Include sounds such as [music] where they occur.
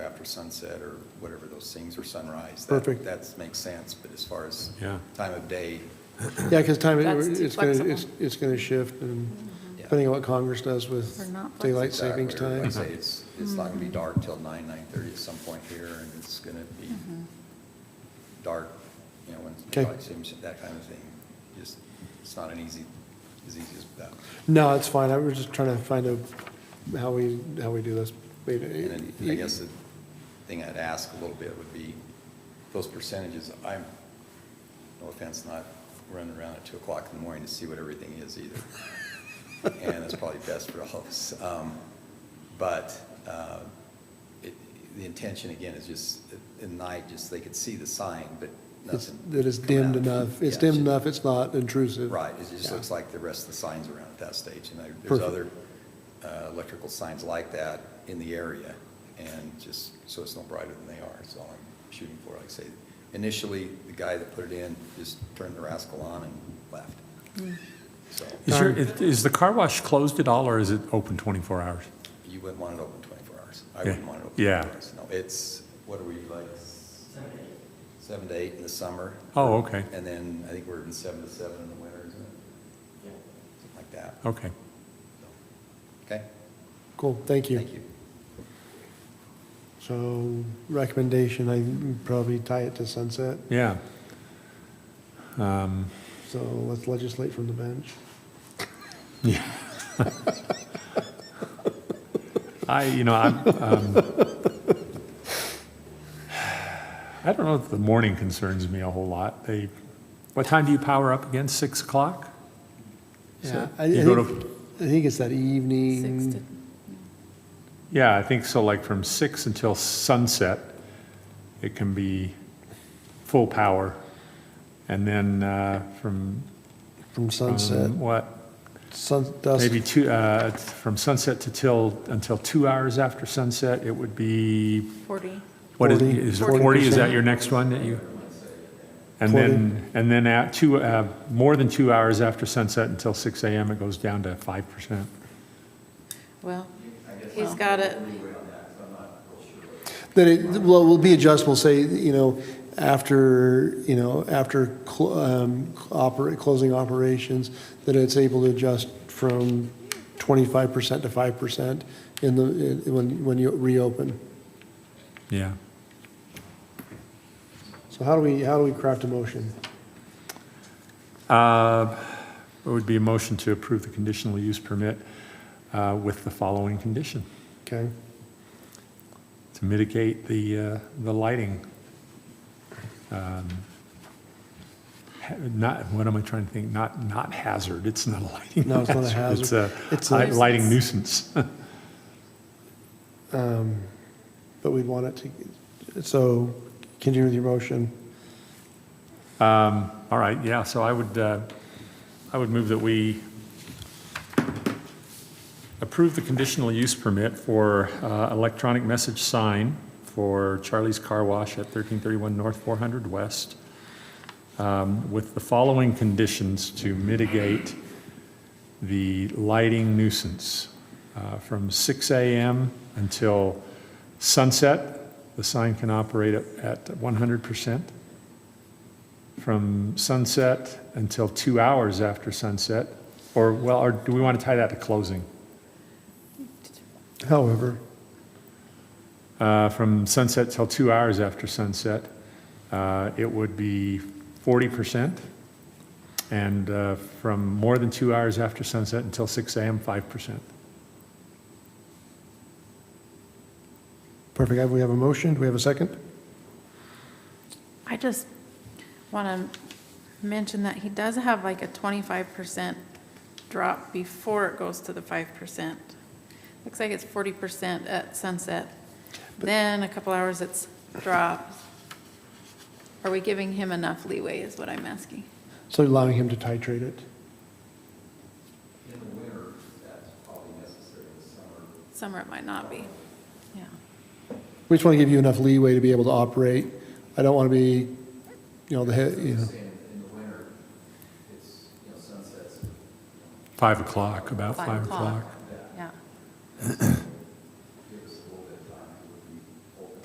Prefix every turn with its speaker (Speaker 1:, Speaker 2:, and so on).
Speaker 1: after sunset or whatever those things, or sunrise. that-
Speaker 2: Perfect.
Speaker 1: That makes sense, but as far as
Speaker 3: Yeah.
Speaker 1: time of day,
Speaker 2: Yeah, because time,
Speaker 4: That's too
Speaker 2: it's going to, it's,
Speaker 4: flexible.
Speaker 2: it's going to shift, and
Speaker 1: Yeah.
Speaker 2: depending on what Congress does
Speaker 4: Or
Speaker 2: with
Speaker 4: not
Speaker 2: daylight
Speaker 1: Exactly.
Speaker 2: savings
Speaker 1: Like I
Speaker 2: time.
Speaker 1: say, it's, it's not gonna be dark till nine, nine-thirty at some point here, and it's gonna be dark, you know, when it's
Speaker 2: Okay.
Speaker 1: daylight savings, that kind of thing. Just, it's not an easy, as easy as that.
Speaker 2: No, it's fine, I was just trying to find out how we, how we do this.
Speaker 1: And then, I guess the thing I'd ask a little bit would be, those percentages, I'm, no offense, not running around at two o'clock in the morning to see what everything is
Speaker 2: [laughs]
Speaker 1: either. And that's probably best for all of us. Um, But uh, it- the intention, again, is just, at night, just they could see the sign, but
Speaker 2: It's-
Speaker 1: nothing.
Speaker 2: That it's
Speaker 1: coming
Speaker 2: dimmed
Speaker 1: out.
Speaker 2: enough, it's
Speaker 1: Yeah,
Speaker 2: dimmed
Speaker 1: just-
Speaker 2: enough, it's not intrusive.
Speaker 1: Right, it just
Speaker 2: Yeah.
Speaker 1: looks like the rest of the signs around at that stage, and there- there's
Speaker 2: Perfect.
Speaker 1: other uh, electrical signs like that in the area, and just, so it's no brighter than they are, is all I'm shooting for, like I say. Initially, the guy that put it in just turned the rascal on and left,
Speaker 3: Mm.
Speaker 1: so
Speaker 3: Is your, is the car wash closed at all, or is it open 24 hours?
Speaker 1: you wouldn't want it open 24 hours. I
Speaker 3: Yeah.
Speaker 1: wouldn't want it open
Speaker 3: Yeah.
Speaker 1: 24 hours. No, it's, what are we, like? Seven to eight. Seven to eight in the summer.
Speaker 3: Oh, okay,
Speaker 1: And then I think we're in seven to seven in the winter, isn't it? Yeah. Something like that,
Speaker 3: okay.
Speaker 1: so, okay?
Speaker 2: Cool, thank you.
Speaker 1: Thank you.
Speaker 2: So recommendation, I probably tie it to sunset,
Speaker 3: Yeah,
Speaker 2: so let's legislate from the bench.
Speaker 3: I, you know, I'm, um, [sighs] I don't know if the morning concerns me a whole lot. They, what time do you power up again, 6 o'clock?
Speaker 2: Yeah, I I
Speaker 3: You go
Speaker 2: think, I think it's that
Speaker 4: Six to-
Speaker 2: evening,
Speaker 3: Yeah, I think so, like from 6 until sunset, it can be full power. And then uh, from,
Speaker 2: from sunset,
Speaker 3: from what,
Speaker 2: sun, dusk.
Speaker 3: Um, Maybe two, uh, from sunset to till, until two hours after sunset, it would be,
Speaker 4: 40.
Speaker 3: what is,
Speaker 2: 40.
Speaker 3: is it
Speaker 2: 40%.
Speaker 3: 40? Is that your next one that you? And then, and then at two, uh, more than two hours after sunset until 6 AM, it goes down to 5%.
Speaker 4: Well, he's got it.
Speaker 2: That it, well, will be adjustable, say, you know, after, you know, after cl- um, operate, closing operations, that it's able to adjust from 25% to 5% in the, in- when, when you reopen.
Speaker 3: Yeah.
Speaker 2: So how do we, how do we craft a motion?
Speaker 3: Uh, It would be a motion to approve the conditional use permit uh, with the following condition,
Speaker 2: Okay,
Speaker 3: to mitigate the, uh, the lighting. um, ha- Not, what am I trying to think? Not, not hazard, it's not a lighting hazard.
Speaker 2: No, it's not a hazard. It's
Speaker 3: It's a
Speaker 2: a-
Speaker 3: li- lighting nuisance.
Speaker 2: but we'd want it to, so continue with your motion.
Speaker 3: All right, yeah, so I would, uh, I would move that we approve the conditional use permit for uh, electronic message sign for Charlie's Car Wash at 1331 North 400 West um, with the following conditions to mitigate the lighting nuisance. Uh, From 6 AM until sunset, the sign can operate at- at 100% from sunset until two hours after sunset? Or, well, or do we want to tie that to closing?
Speaker 2: However,
Speaker 3: Uh, From sunset till two hours after sunset, uh, it would be 40%. And uh, from more than two hours after sunset until 6 AM, 5%.
Speaker 2: perfect, Have we have a motion, do we have a second?
Speaker 4: I just want to mention that he does have like a 25% drop before it goes to the 5%. Looks like it's 40% at sunset. Then a couple hours it's dropped. Are we giving him enough leeway is what I'm asking.
Speaker 2: So allowing him to titrate it.
Speaker 4: Summer it might not be. Yeah.
Speaker 2: We just want to give you enough leeway to be able to operate. I don't want to be, you know, the, he- you know,
Speaker 3: Five o'clock, about five o'clock.
Speaker 4: Yeah.